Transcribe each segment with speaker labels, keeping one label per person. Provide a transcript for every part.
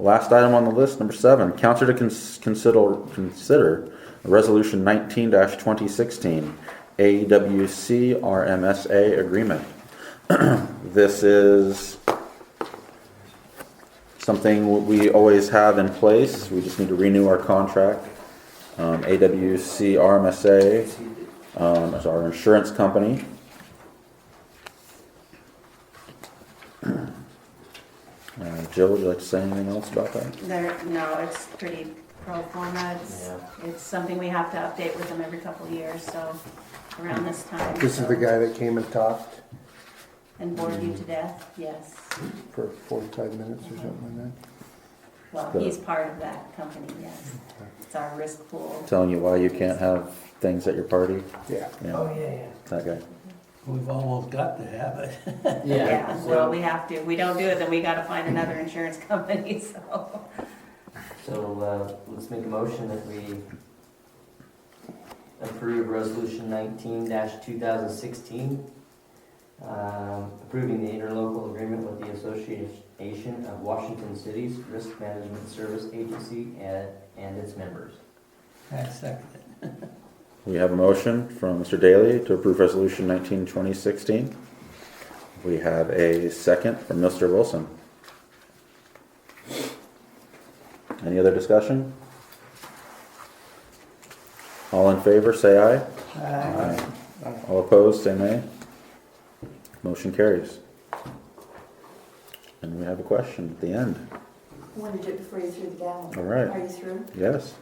Speaker 1: Last item on the list, number seven, council to cons- consider, consider resolution nineteen twenty sixteen, AWC RMSA agreement. This is something we always have in place, we just need to renew our contract. Um, AWC RMSA, um, is our insurance company. Uh, Jill, would you like to say anything else about that?
Speaker 2: There, no, it's pretty pro forma. It's, it's something we have to update with them every couple of years, so around this time.
Speaker 3: This is the guy that came and talked
Speaker 2: And bored you to death, yes.
Speaker 3: for forty-five minutes or something like
Speaker 2: Well,
Speaker 1: The-
Speaker 2: he's part of that company, yes. It's our risk pool.
Speaker 1: telling you why you can't have things at your party.
Speaker 3: that? Yeah.
Speaker 1: You
Speaker 4: Oh,
Speaker 1: know,
Speaker 4: yeah,
Speaker 1: that guy.
Speaker 4: yeah. We've almost got to have it.
Speaker 2: Yeah, well, we have to. If we don't do it, then we gotta find another insurance company, so.
Speaker 5: So, uh, let's make a motion that we approve resolution nineteen two thousand sixteen, um, approving the interlocal agreement with the Association of Washington Cities Risk Management Service Agency and, and its members.
Speaker 4: I second it.
Speaker 1: We have a motion from Mr. Daly to approve resolution 19 2016. We have a second from Mr. Wilson. Any other discussion? All in favor, say aye. Aye. All opposed, say nay. Motion carries. And we have a question at the end.
Speaker 6: I wanted it before you threw the gavel.
Speaker 1: All right.
Speaker 6: Are you through?
Speaker 1: Yes.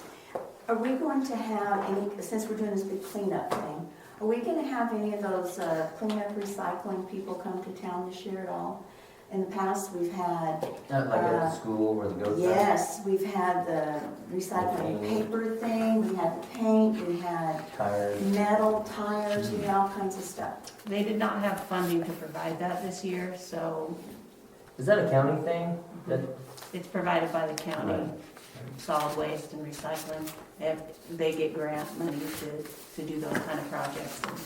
Speaker 6: Are we going to have any, since we're doing this big cleanup thing, are we gonna have any of those uh, cleanup recycling people come to town this year at all? In the past, we've had,
Speaker 5: Not like at
Speaker 6: Uh,
Speaker 5: the school where the goats. are.
Speaker 6: yes, we've had the recycling paper thing, we had the paint, we had
Speaker 5: Tires.
Speaker 6: metal tires, we had all kinds of stuff.
Speaker 2: They did not have funding to provide that this year, so
Speaker 5: Is that a county thing? That,
Speaker 2: it's provided by the county.
Speaker 5: Right.
Speaker 2: Solid waste and recycling. They have, they get grant money to, to do those kind of projects. and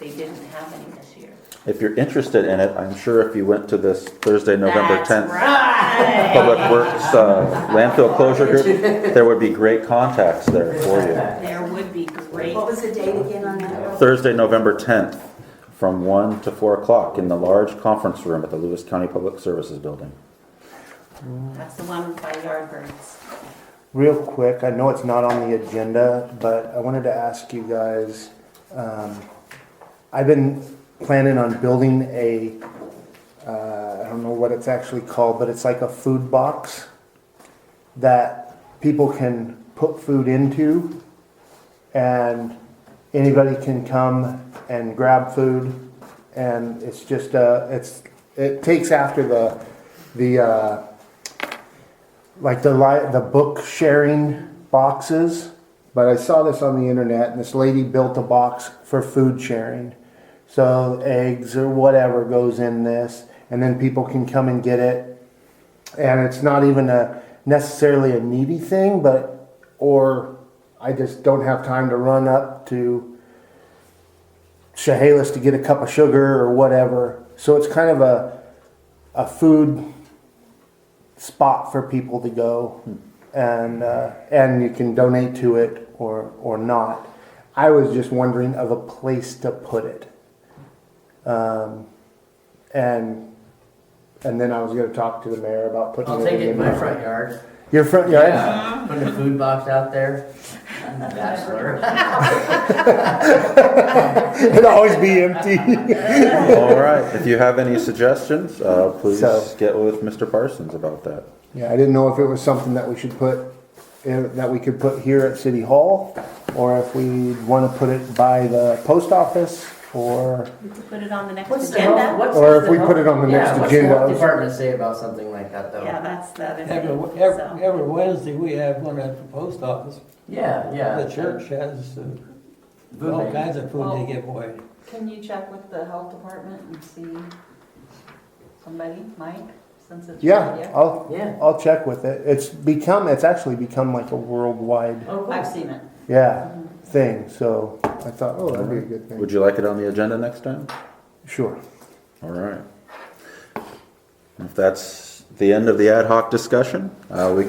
Speaker 2: They didn't have any this year.
Speaker 1: If you're interested in it, I'm sure if you went to this Thursday, November
Speaker 2: That's
Speaker 1: 10th
Speaker 2: right.
Speaker 1: Public Works uh, landfill closure group, there would be great contacts there for you.
Speaker 2: There would be great.
Speaker 6: What was the date again on that?
Speaker 1: Thursday, November 10th, from 1 to 4 o'clock in the large conference room at the Lewis County Public Services Building.
Speaker 2: That's the one by Yardbirds.
Speaker 3: Real quick, I know it's not on the agenda, but I wanted to ask you guys, um, I've been planning on building a, uh, I don't know what it's actually called, but it's like a food box that people can put food into and anybody can come and grab food and it's just, uh, it's, it takes after the, the, uh, like the li- the book sharing boxes. But I saw this on the internet, and this lady built a box for food sharing. So eggs or whatever goes in this, and then people can come and get it. And it's not even a necessarily a needy thing, but or I just don't have time to run up to Chehalis to get a cup of sugar or whatever. So it's kind of a a food spot for people to go and uh, and you can donate to it or or not. I was just wondering of a place to put it. Um, and and then I was going to talk to the mayor about putting
Speaker 5: I'll
Speaker 3: it
Speaker 5: take
Speaker 3: in
Speaker 5: it in my front yard.
Speaker 3: Your front yard?
Speaker 5: Yeah, Put a food box out there. Bachelor.
Speaker 3: It'll always be empty.
Speaker 1: All right, if you have any suggestions, uh, please
Speaker 3: So-
Speaker 1: get with Mr. Parsons about that.
Speaker 3: yeah, I didn't know if it was something that we should put eh, that we could put here at City Hall or if we want to put it by the post office or
Speaker 2: We could put it on the
Speaker 5: What's
Speaker 2: next
Speaker 5: the health,
Speaker 2: agenda.
Speaker 5: what's
Speaker 3: Or
Speaker 5: what's
Speaker 3: if
Speaker 5: the
Speaker 3: we
Speaker 5: health-
Speaker 3: put it on the
Speaker 5: yeah,
Speaker 3: next
Speaker 5: what's the health
Speaker 3: agenda.
Speaker 5: Department say about something like that though.
Speaker 2: Yeah, that's the other
Speaker 4: Every,
Speaker 2: thing.
Speaker 4: every,
Speaker 2: So,
Speaker 4: every Wednesday, we have one at the post office.
Speaker 5: Yeah, yeah.
Speaker 4: The church has uh,
Speaker 5: Food
Speaker 4: all
Speaker 5: bank.
Speaker 4: kinds of food they give away.
Speaker 7: Can you check with the health department and see somebody, Mike, since it's.
Speaker 3: yeah, I'll
Speaker 5: Yeah.
Speaker 3: I'll check with it. It's become, it's actually become like a worldwide,
Speaker 5: Oh,
Speaker 7: I've
Speaker 5: cool.
Speaker 7: seen it.
Speaker 3: yeah, thing. So I thought, oh, that'd be a good thing.
Speaker 1: Would you like it on the agenda next time?
Speaker 3: Sure.
Speaker 1: All right. If that's the end of the ad hoc discussion. Uh, We